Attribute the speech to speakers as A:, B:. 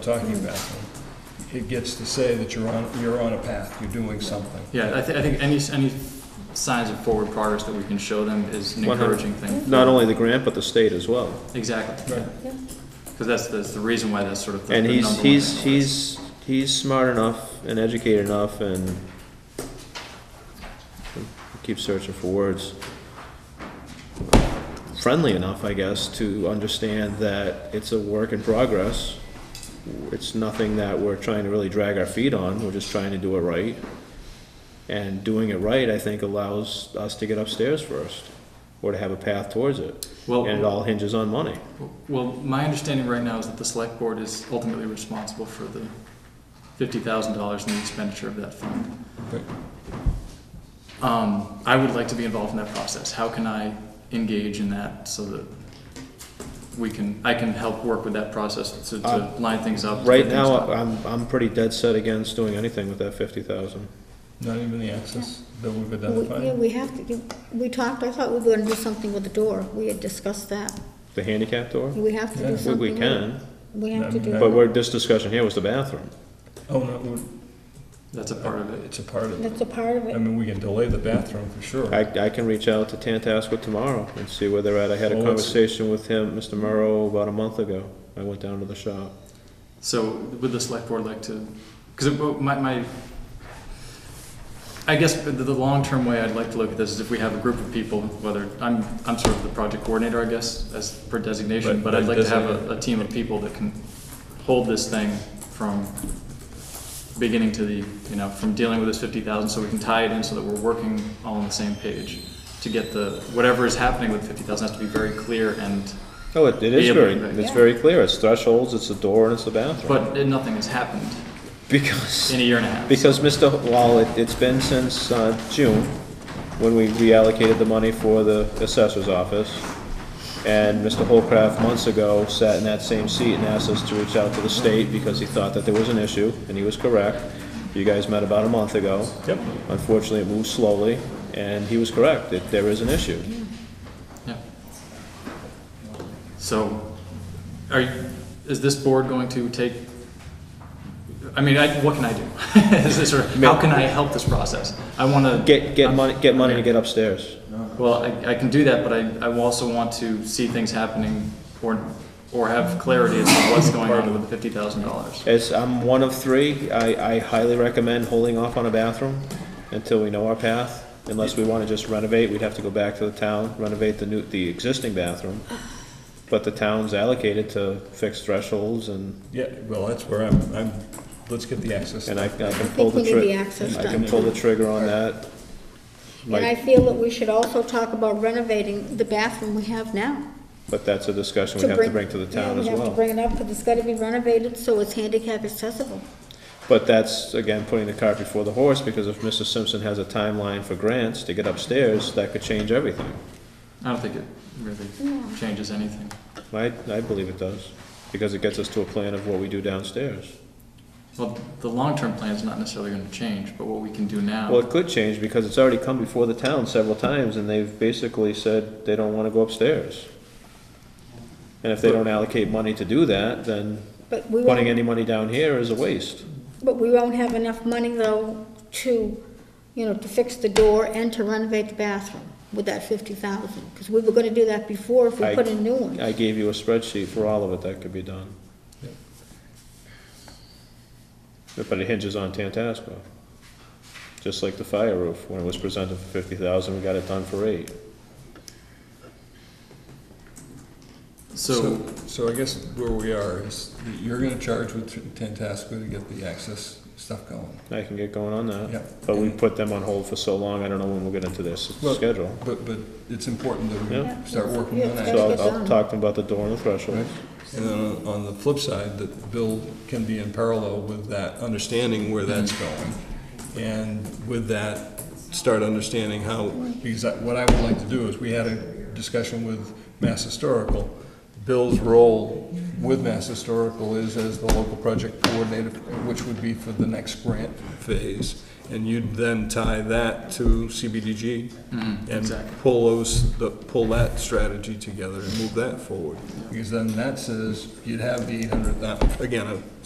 A: talking about. It gets to say that you're on, you're on a path, you're doing something.
B: Yeah, I, th- I think any, s- any signs of forward progress that we can show them is an
C: 100.
B: encouraging thing.
C: Not only the grant, but the state as well.
B: Exactly,
A: Right.
B: because that's, that's the reason why that's sort of the
C: And
B: the
C: he's,
B: number one
C: he's,
B: thing on the
C: he's, he's smart enough and educated enough and keep searching for words. Friendly enough, I guess, to understand that it's a work in progress. It's nothing that we're trying to really drag our feet on, we're just trying to do it right. And doing it right, I think, allows us to get upstairs first, or to have a path towards it.
B: list.
C: And it
B: Well,
C: all hinges on money.
B: well, my understanding right now is that the select board is ultimately responsible for the fifty thousand dollars in the expenditure of that fund.
A: Right.
B: Um, I would like to be involved in that process. How can I engage in that so that we can, I can help work with that process to, to
C: Uh,
B: line things up? to
C: Right
B: get things
C: now, uh,
B: done?
C: I'm, I'm pretty dead set against doing anything with that fifty thousand.
A: Not even the access that we've
D: We- Yeah,
A: identified.
D: we have to, you- we talked, I thought we were gonna do something with the door, we had discussed that.
C: The handicap door?
D: We have to
A: Yeah.
D: do
C: We,
D: something.
C: we
D: with-
C: can,
D: We have to do.
C: but we're, this discussion here was the bathroom.
A: Oh, no, we-
B: That's a part of it.
A: it's a part of it.
D: That's a part of
A: I
D: it.
A: mean, we can delay the bathroom for sure.
C: I, I can reach out to Tantascwa tomorrow and see where they're at. I
B: Oh,
C: had a
A: Well, it's-
C: conversation with him, Mr. Murrow, about a month ago. I went down to the shop.
B: So would the select board like to, because my, my, I guess the, the long-term way I'd like to look at this is if we have a group of people, whether, I'm, I'm sort of the project coordinator, I guess, as per designation,
A: Right,
B: but I'd like to have a,
A: designated.
B: a team of people that can hold this thing from beginning to the, you know, from dealing with this fifty thousand, so we can tie it in so that we're working all on the same page. To get the, whatever is happening with fifty thousand has to be very clear and,
C: Oh, it, it is
B: Yeah,
C: very,
B: but-
C: it's very clear. It's thresholds, it's the door, and it's the bathroom.
B: but nothing has happened
C: Because.
B: in a year and a half.
C: Because Mr., Ho- well, it- it's been since uh, June, when we reallocated the money for the assessor's office, and Mr. Holcraft months ago sat in that same seat and asked us to reach out to the state because he thought that there was an issue, and he was correct. You guys met about a month ago.
A: Yep.
C: Unfortunately, it moved slowly, and he was correct, that there is an issue.
B: Yeah. So, are, you- is this board going to take, I mean, I, what can I do? Is this, or how can I help this process? I wanna.
C: Get, get money, get money to get upstairs.
B: Well, I, I can do that, but I, I also want to see things happening or, or have clarity as to what's going on with the fifty thousand dollars.
C: As I'm one of three, I, I highly recommend holding off on a bathroom until we know our path. Unless we wanna just renovate, we'd have to go back to the town, renovate the new, the existing bathroom. But the town's allocated to fix thresholds and,
A: Yeah, well, that's where I'm, I'm, let's get the access.
C: and I I can
D: I
C: pull
D: think we
C: the
D: need the
C: trigger.
D: access
C: I can
D: done.
C: pull the trigger on that.
D: And I
C: Like,
D: feel that we should also talk about renovating the bathroom we have now.
C: but that's a discussion we have to bring to the town as
D: Yeah, we have to
C: well.
D: bring it up, but it's gotta be renovated so it's handicap accessible.
C: But that's, again, putting the cart before the horse, because if Mr. Simpson has a timeline for grants to get upstairs, that could change everything.
B: I don't think it really changes anything.
C: I, I believe it does, because it gets us to a plan of what we do downstairs.
B: Well, the long-term plan is not necessarily gonna change, but what we can do now.
C: Well, it could change, because it's already come before the town several times, and they've basically said they don't wanna go upstairs. And if they don't allocate money to do that, then
D: But we
C: putting
D: won't,
C: any money down here is a waste.
D: but we won't have enough money though to, you know, to fix the door and to renovate the bathroom with that fifty thousand. Because we were gonna do that before if we
C: I-
D: put in new ones.
C: I gave you a spreadsheet for all of it that could be done. But it hinges on Tantasco. Just like the fire roof, when it was presented for fifty thousand, we got it done for eight.
B: So,
A: So I guess where we are is, that you're gonna charge with Tantascwa to get the access stuff going.
C: I can get going on that.
A: Yeah.
C: But we put them on hold for so long, I don't know when we'll get into this
A: Well-
C: schedule.
A: But, but it's important that
C: Yeah.
A: we start working
D: Yeah,
A: on
D: it's
A: that.
D: gotta
C: So
D: get
C: I'll- I'll
D: done.
C: talk to them about the door and the threshold.
A: Right. And then on the flip side, that Bill can be in parallel with that, understanding where that's going. And with that, start understanding how, because I- what I would like to do is, we had a discussion with Mass Historical. Bill's role with Mass Historical is as the local project coordinator, which would be for the next grant phase. And you'd then tie that to CBDG
B: exactly.
A: and pull those, the- pull that strategy together and move that forward. Because then that says, you'd have the eight hundred, again, a